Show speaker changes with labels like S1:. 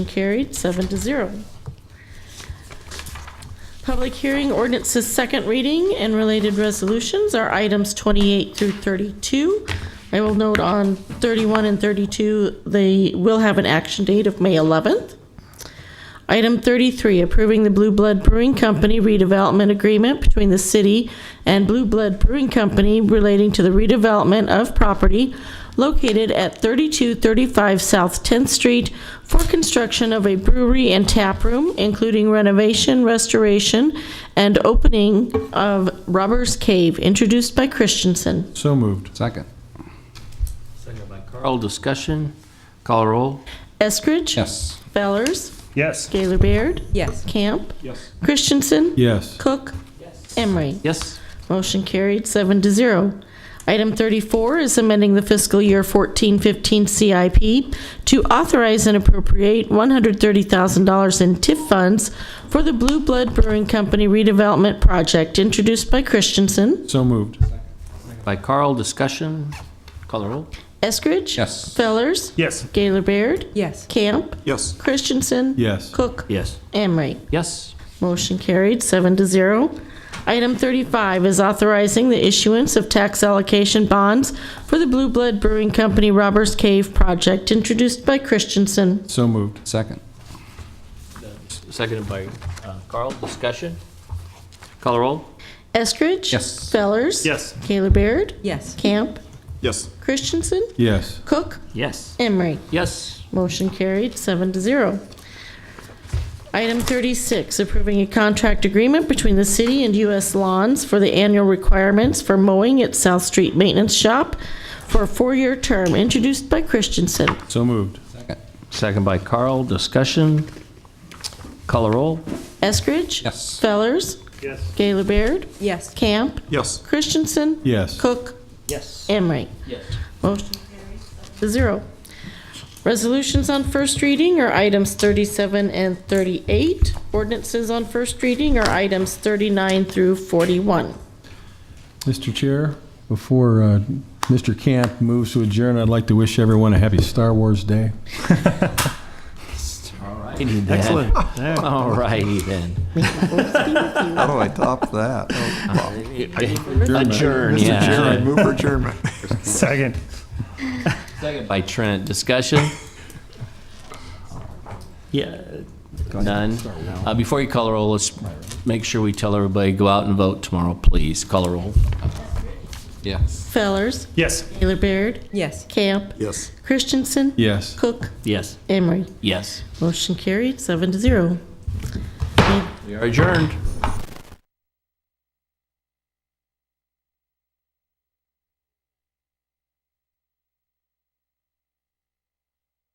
S1: Carried, seven to zero. Public hearing ordinances second reading and related resolutions are items 28 through 32. I will note on 31 and 32, they will have an action date of May 11th. Item 33, approving the Blue Blood Brewing Company redevelopment agreement between the city and Blue Blood Brewing Company relating to the redevelopment of property located at 3235 South 10th Street for construction of a brewery and tap room, including renovation, restoration, and opening of Robbers Cave, introduced by Christensen.
S2: So moved.
S3: Second.
S4: Second by Carl, discussion, call roll.
S1: Eskridge.
S3: Yes.
S1: Fellers.
S2: Yes.
S1: Gaylor Baird.
S5: Yes.
S1: Camp.
S2: Yes.
S1: Christensen.
S2: Yes.
S1: Cook. Emery.
S4: Yes,
S1: Motion carried, seven to zero. Item 34 is amending the fiscal year 1415 CIP to authorize and appropriate $130,000 in TIF funds for the Blue Blood Brewing Company redevelopment project, introduced by Christensen.
S2: So moved.
S4: by Carl, discussion, call roll.
S1: Eskridge?
S3: Yes.
S1: Fellers?
S2: Yes.
S1: Gaylor Baird?
S5: Yes.
S1: Camp?
S2: Yes.
S1: Christensen?
S2: Yes.
S1: Cook?
S4: Yes.
S1: Emery?
S4: Yes,
S1: Motion carried, seven to zero. Item 35 is authorizing the issuance of tax allocation bonds for the Blue Blood Brewing Company Robbers Cave project, introduced by Christensen.
S2: So moved.
S3: Second.
S4: seconded by uh, Carl, discussion, call roll.
S1: Eskridge?
S3: Yes.
S1: Fellers?
S2: Yes.
S1: Gaylor Baird?
S5: Yes.
S1: Camp?
S2: Yes.
S1: Christensen?
S2: Yes.
S1: Cook?
S4: Yes.
S1: Emery?
S4: Yes,
S1: Motion carried, seven to zero. Item 36, approving a contract agreement between the city and U.S. Lawns for the annual requirements for mowing at South Street Maintenance Shop for a four-year term, introduced by Christensen.
S2: So moved.
S3: Second.
S4: second by Carl, discussion, call roll.
S1: Eskridge?
S3: Yes.
S1: Fellers?
S2: Yes.
S1: Gaylor Baird?
S5: Yes.
S1: Camp?
S2: Yes.
S1: Christensen?
S2: Yes.
S1: Cook?
S4: Yes.
S1: Emery?
S4: Yes.
S1: Motion carries seven to zero. Resolutions on first reading are items 37 and 38. Ordinances on first reading are items 39 through 41.
S2: Mr. Chair, before uh, Mr. Camp moves to adjourn, I'd like to wish everyone a happy Star Wars Day.
S4: Excellent. All righty then.
S6: How do I top that? Oh,
S4: Adjourn, yeah.
S6: Move for adjournment.
S2: Second.
S4: Second by Trent, discussion? Yeah, none. Uh, Before you call a roll, let's make sure we tell everybody, go out and vote tomorrow, please. Call a roll.
S3: Yes.
S1: Fellers,
S2: Yes.
S1: Gaylor Baird,
S5: Yes.
S1: Camp,
S6: Yes.
S1: Christensen,
S2: Yes.
S1: Cook,
S4: Yes.
S1: Emery.
S4: Yes.
S1: Motion carried, seven to zero.
S4: We are adjourned.